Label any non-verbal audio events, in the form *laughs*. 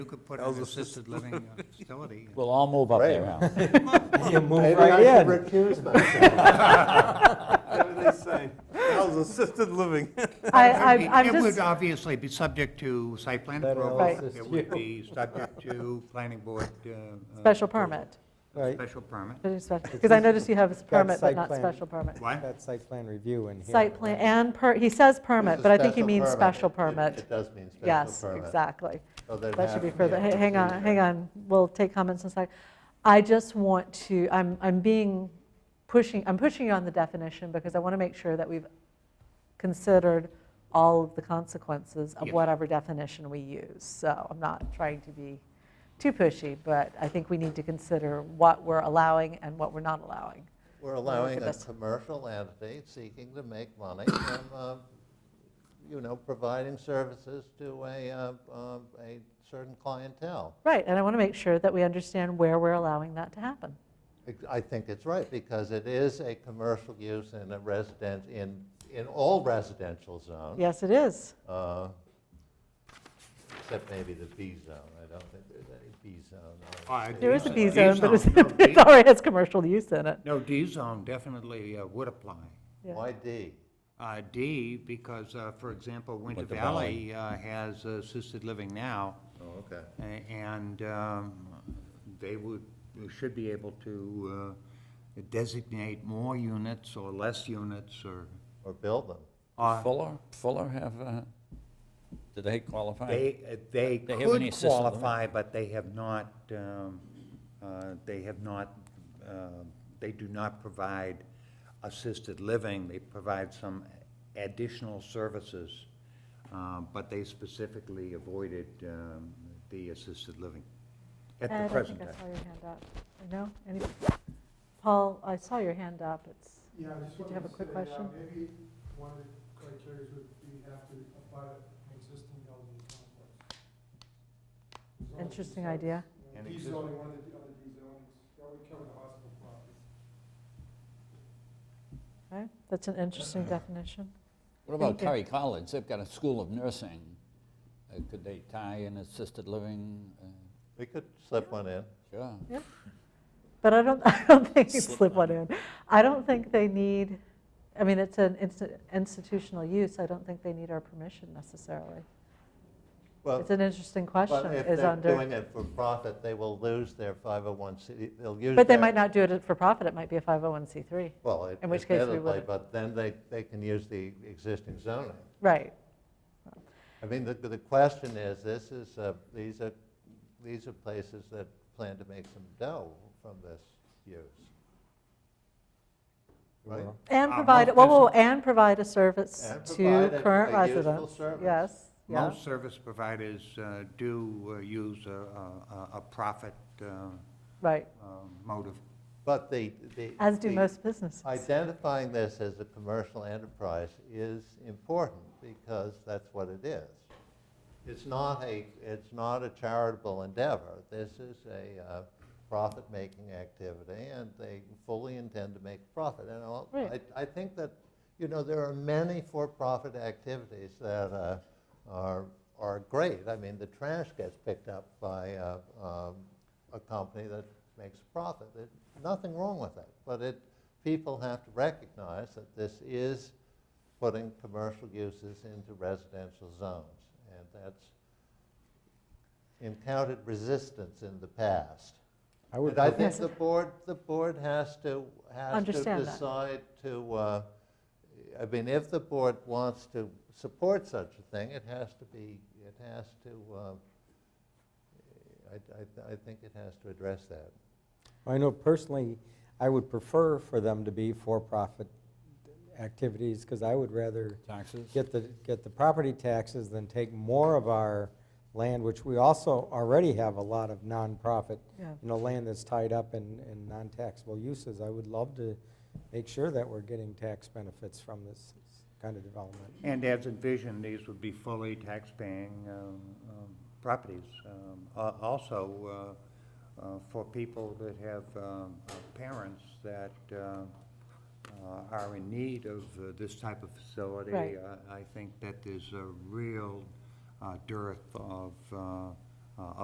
You could put That was an a assisted living uh, *laughs* facility. Well, I'll move up there Right. now. You move Maybe I right should in. recuse myself. *laughs* What are they saying? How's assisted living? *laughs* I, It- I- I'm It would just, obviously be subject to site plan That approval. Right. analysis It would too. be subject to planning board. uh, uh, special approval. permit, *laughs* Right, Special permit. because I noticed you have permit, but site not plan. special permit. What? got site plan review in here. Site plan and per, he says permit, It's a but I think he special means permit. special It- it- permit. It does mean special permit. Yes, exactly. So there'd That should have be to further, a h- hang on, procedure. hang on, we'll take comments in a sec. I just want to, I'm, I'm being, pushing, I'm pushing you on the definition because I want to make sure that we've considered all of the consequences of Yes. whatever definition we use. So I'm not trying to be too pushy, but I think we need to consider what we're allowing and what we're not allowing. We're allowing at a this. commercial entity seeking to make money from, uh, you know, providing services to a, uh, um, a certain clientele. Right, and I want to make sure that we understand where we're allowing that to happen. Ex- I think it's right, because it is a commercial use in a resident, in, in all residential zones. Yes, it is. uh, Except maybe the B zone, I don't think there's any B zone. Oh, I- There is a D B zone, but it's- *laughs* zone, no, D- it already has commercial use in it. No, D zone definitely uh, would apply. Yeah. Why D? Uh, D, because, uh, for example, Winter Winter Valley uh, has assisted living now, Oh, okay. a- and um, they would, they should be able to uh, designate more units or less units or, Or build them. or Fuller, Fuller have, uh, do they qualify? They, uh, they They have any could assisted living? qualify, but they have not, um, uh, they have not, uh, they do not provide assisted living. They provide some additional services, uh, but they specifically avoided um, the assisted living at Ed, the present Uh, I time. think I saw your hand up. No? Any- Paul, I saw your hand up. It's, Yeah, I Did just you wanted have to a quick say, yeah, question? maybe one of the criteria would be have to apply to an existing building complex. There's only interesting two sites. idea. You know, An D existing- zoning, one of the, other D zonings, that would cover the hospital property. Okay, that's an interesting definition. What about Thank you. Curry College? They've got a school of nursing. Uh, Could they tie in assisted living? Uh, We could slip one in. Sure. But I don't, *laughs* I don't think it's Slip slip one one in. I don't think they need, I mean, it's an insti- institutional use. I don't think they need our permission necessarily. Well, It's an interesting question, But if is they're under, doing it for profit, they will lose their 501c, they'll use but they that- might not do it for profit. It might be a 501c3. Well, it- in which case we admittedly, wouldn't. but then they, they can use the existing zoning. Right. I mean, the, the question is, this is, uh, these are, these are places that plan to make some dough from this use. Right? Well, And Uh, provide, most whoa, whoa, and provide a service And to provide a- current a useful residents. service. Yes, yeah. Most service providers uh, do uh, use a- a a- a profit uh, Right, uh, motive. But the, the. as do the- most businesses. Identifying this as a commercial enterprise is important because that's what it is. It's not a, it's not a charitable endeavor. This is a uh, profit-making activity and they fully intend to make profit. And I'll- Right. I, I think that, you know, there are many for-profit activities that uh, are, are great. I mean, the trash gets picked up by uh, um, a company that makes a profit. There's nothing wrong with it, but it, people have to recognize that this is putting commercial uses into residential zones. And that's encountered resistance in the past. I would, And I prefer- think Yes. the board, the board has to, has to Understand that. decide to, uh, I mean, if the board wants to support such a thing, it has to be, it has to, um, I, I, I think it has to address that. I know personally, I would prefer for them to be for-profit activities, because I would rather Taxes? get the, get the property taxes than take more of our land, which we also already have a lot of nonprofit, Yeah. you know, land that's tied up in, in non-taxable uses. I would love to make sure that we're getting tax benefits from this kind of development. And as envisioned, these would be fully tax-paying um, um, properties. Um, a- Also, uh, uh, for people that have um, uh, parents that uh, uh, are in need of uh, this type of facility, Right. I I think that there's a real uh, dearth of, uh, uh,